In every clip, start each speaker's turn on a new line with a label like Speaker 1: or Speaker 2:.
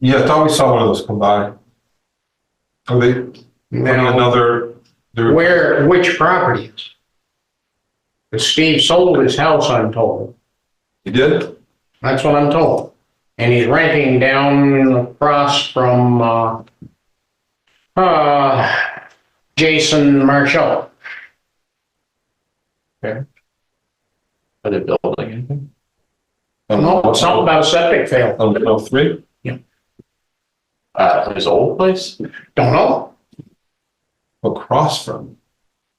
Speaker 1: Yeah, I thought we saw one of those come by. Are they,
Speaker 2: Now-
Speaker 1: wanting another, they're-
Speaker 2: Where, which property? But Steve sold his house, I'm told.
Speaker 1: you did?
Speaker 2: That's what I'm told. And he's renting down across from, uh, uh, Jason Marshall.
Speaker 3: Are they building anything?
Speaker 2: No,
Speaker 1: Oh,
Speaker 2: something about a septic fail.
Speaker 1: On Mill Oh, Three?
Speaker 3: Uh, his old place?
Speaker 2: Don't know.
Speaker 1: Across from,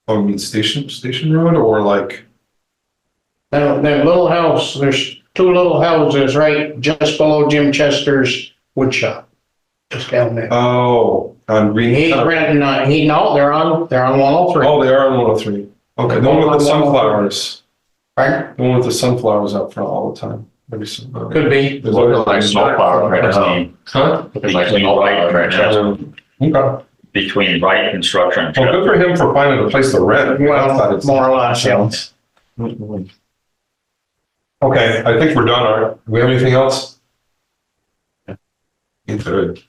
Speaker 1: oh, I mean Station, Station Road or like,
Speaker 2: That, that little house, there's two little houses right just below Jim Chester's wood shop. Just down there.
Speaker 1: oh, on Green.
Speaker 2: He's renting, uh, he, no, they're on, they're on one oh three,
Speaker 1: Oh, they are on one oh three. Okay, the one with the sunflowers,
Speaker 2: right?
Speaker 1: the one with the sunflowers out front all the time. Maybe some. uh,
Speaker 2: Could be.
Speaker 1: There's
Speaker 3: Looking
Speaker 1: always-
Speaker 3: like snowplow right now.
Speaker 1: Huh?
Speaker 3: Looking like snowplow right now.
Speaker 1: Um, Okay.
Speaker 4: between right construction and
Speaker 1: Well, good
Speaker 4: Chestnut.
Speaker 1: for him for finding a place to rent. Outside
Speaker 2: Well,
Speaker 1: it's-
Speaker 2: more or less, yeah.
Speaker 1: Okay, I think we're done, Art. Do we have anything else? You Good.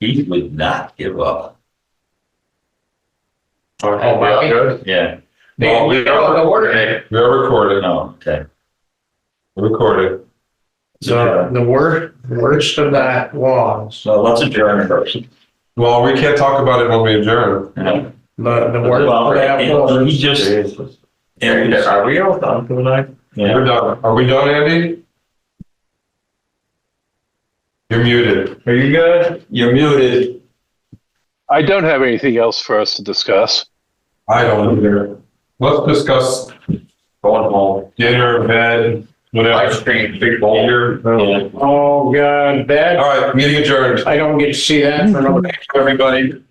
Speaker 4: He would not give up.
Speaker 3: Oh,
Speaker 2: wow.
Speaker 3: good.
Speaker 4: Yeah,
Speaker 1: Well, we
Speaker 2: Oh, the
Speaker 1: are,
Speaker 2: word,
Speaker 1: we are recorded,
Speaker 4: no, okay.
Speaker 1: recorded.
Speaker 2: the, the worst, worst of that was,
Speaker 4: So let's adjourn first.
Speaker 1: Well, we can't talk about it when we adjourn.
Speaker 4: Yeah.
Speaker 2: the, the worst
Speaker 4: Well,
Speaker 2: of that
Speaker 4: he-
Speaker 2: was.
Speaker 4: He just,
Speaker 3: And Are we all done for the night?
Speaker 4: yeah,
Speaker 1: We're done. Are we done, Andy? You're muted.
Speaker 3: Are you good?
Speaker 1: You're muted.
Speaker 5: I don't have anything else for us to discuss.
Speaker 1: I don't either. Let's discuss
Speaker 3: Going home.
Speaker 1: dinner, bed,
Speaker 3: Ice
Speaker 1: whatever.
Speaker 3: cream, big bowl.
Speaker 1: Here.
Speaker 3: Yeah.
Speaker 2: Oh, God,
Speaker 1: All
Speaker 2: that,
Speaker 1: right, meeting adjourned.
Speaker 2: I don't get to see that for another.
Speaker 1: Everybody.